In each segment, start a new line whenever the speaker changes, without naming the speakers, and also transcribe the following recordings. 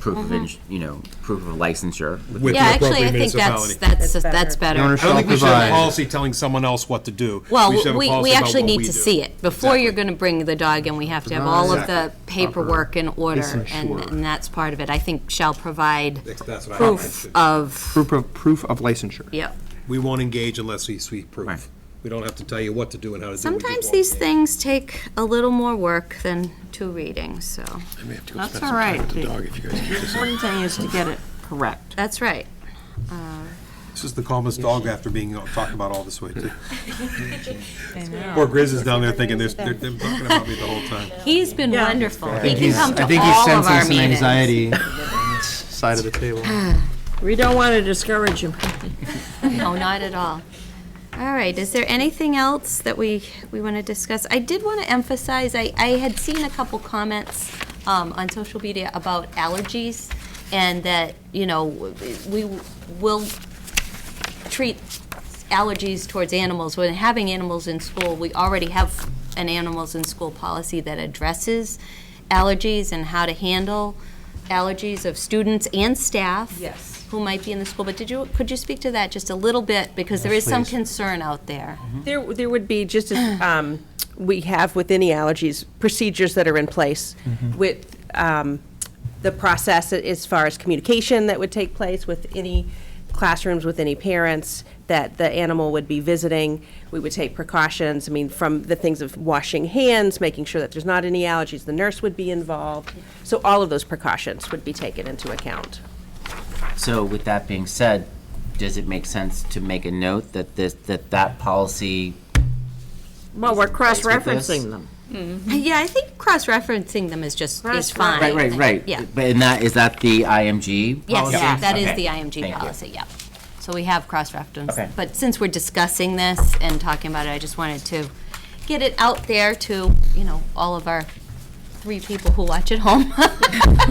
proof of, ins- you know, proof of licensure.
with
Yeah,
an
actually, I
appropriate
think that's,
municipality.
that's,
That's
that's
The owner
better. Oh,
I don't think we should have a
provide-
policy telling someone else what to do. should
Well,
have a
we,
policy
we
about
actually
what
need
we
to
do.
see it. Before you're
Exactly.
going to bring the dog in, we have to have all of the paperwork in order, and,
ensure.
and that's part of it. I think shall provide
That's- that's what I think it
proof
should be.
of,
Proof of, proof of licensure.
yep.
We won't engage unless we see
Right.
proof. We don't have to tell you what to do and how to do it. We just
Sometimes
won't
these
engage.
things take a little more work than two readings, so,
I may have to go
That's
spend some
all
time
right.
with the dog if you guys keep this up.
Important thing is to get it correct.
that's right. Uh,
This is the calmest dog after being talked about all this way, too. Poor Grizz is down there thinking, they're, they're they're talking about me the whole time.
He's been wonderful. He can
He's-
come to
I think he's
all of
sensing
our
some
meetings.
anxiety side of the table.
We don't want to discourage him.
No, Oh, not at all. All right, is there anything else that we, we want to discuss? I did want to emphasize, I, I had seen a couple comments um, on social media about allergies, and that, you know, we will treat allergies towards animals, when having animals in school, we already have an animals in school policy that addresses allergies and how to handle allergies of students and staff.
Yes.
Who might be in the school, but did you, could you speak to that just a little bit? Because there is some
please.
concern out there.
There, there would be, just as um, we have with any allergies, procedures that are in place with um, the process as far as communication that would take place with any classrooms, with any parents, that the animal would be visiting. We would take precautions, I mean, from the things of washing hands, making sure that there's not any allergies, the nurse would be involved. So all of those precautions would be taken into account.
So with that being said, does it make sense to make a note that this, that that policy?
Well, we're
place with this?
cross-referencing them.
Yeah, I think cross-referencing them is just, is fine.
Right, right, right.
Yeah.
But and that, is that the IMG?
Yes,
policy?
that is
Okay.
the IMG
Thank you.
policy, yeah. So we have cross-referenced.
Okay.
But since we're discussing this and talking about it, I just wanted to get it out there to, you know, all of our three people who watch at home,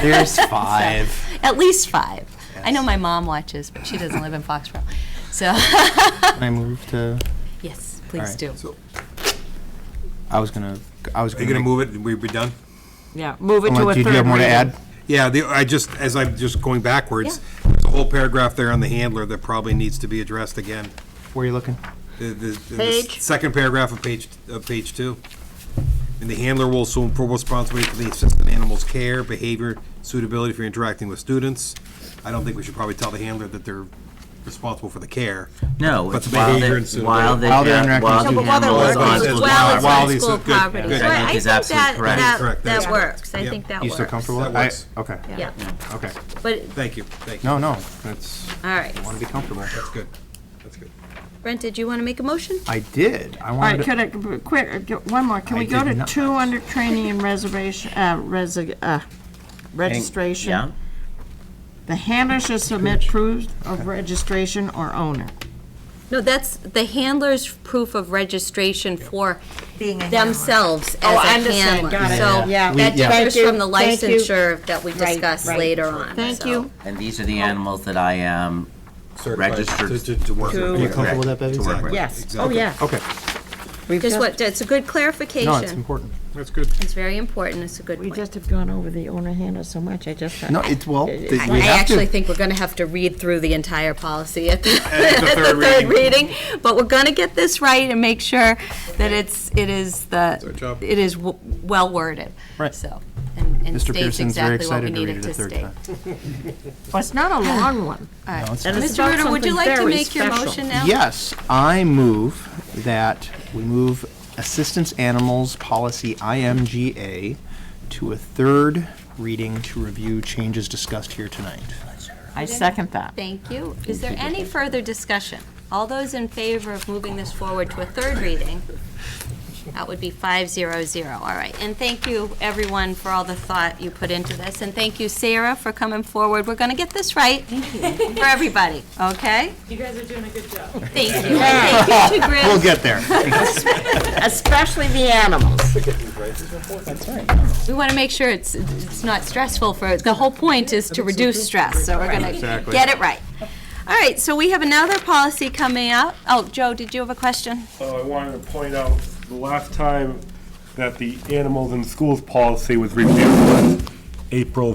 There's five.
at least five. I know my mom watches, but she doesn't live in Foxborough. So,
I move to,
yes, please
right.
do.
I was gonna, I was
Are
gonna.
you gonna
make-
move it and we be done?
Yeah, move it to a
Unless-
third
Do
reading.
you have more to add?
Yeah, the, I just, as I'm just going backwards, there's a whole paragraph there on the handler that probably needs to be addressed again.
Where are you looking?
The, the, the
Page.
second paragraph of page, of page two. And the handler will assume full responsibility for the assistant animal's care, behavior, suitability for interacting with students. I don't think we should probably tell the handler that they're responsible for the care.
No,
But
it's
the
while
behavior
they're,
and suitability.
while they're,
While they're
while
interacting with
the
students.
Well, while they're
animal is on school
working with students. Well, it's
Well, it's
property.
While
on
these-
school
good,
property.
good.
So I-
I
I
think
think
is
that,
absolutely correct.
that,
Correct,
that
that's correct.
works. I
Yep.
think that
You
works.
still comfortable?
That
I-
works.
Okay,
Yeah,
okay.
but,
Thank you, thank you.
No, no, that's,
all right.
I wanna be comfortable.
That's good, that's good.
Brent, did you want to make a motion?
I did, I
All right,
wanted
could
to,
I, quick, uh, go- one more, can
I
we go
did
to
not.
two under training and reservation, uh, resi- uh, registration?
Yeah,
The handler should submit proof of registration or owner.
No, that's the handler's proof of registration for
Being a
themselves
Oh, I
as a
understand.
handler.
Got it.
So
Yeah.
that
We- yeah.
differs
Thank you.
from the
Thank you.
licensure that we discuss
right.
later on.
Thank
so.
you.
and these are the animals that I am
Certified
Registered
to- To, to work.
to-
are you comfortable with that, Bevy?
to work with.
Yes, oh,
Okay.
yeah.
Okay,
We've
Just
just,
what, it's a good clarification.
no, it's important.
That's good.
It's very important, it's a good
we
point.
just have gone over the owner handler so much, I just.
No, it's, well, th- we
I
have
actually
to.
think we're going to have to read through the entire policy at the
the
at the
third
third
reading.
reading, but we're going to get this right and make sure that it's, it is
our
the,
job.
it is w- well worded.
Right.
So, and and
Mr.
states
Pearson's very
exactly what we
excited to
need
read
it
it a
to
third
state.
time.
Well, it's not a long one. And it's
Mr.
about
Ritter, would you
something
like to
very
make your
special.
motion now?
Yes, I move that we move Assistance Animals Policy IMGA to a third reading to review changes discussed here tonight.
I second that.
Thank you. Is there any further discussion? All those in favor of moving this forward to a third reading? That would be five zero zero. All right. And thank you, everyone, for all the thought you put into this. And thank you, Sarah, for coming forward. We're going to get this right. For everybody, okay? You guys are doing a good job. Thank you. And Thank you to Grizz.
We'll get there.
Especially the animals.
We want to make sure it's, it's not stressful for, the whole point is to reduce stress, so we're going to get it right. All right, so we have another policy coming out. Oh, Joe, did you have a question?
Uh, I wanted to point out, the last time that the animals in schools policy was reviewed was April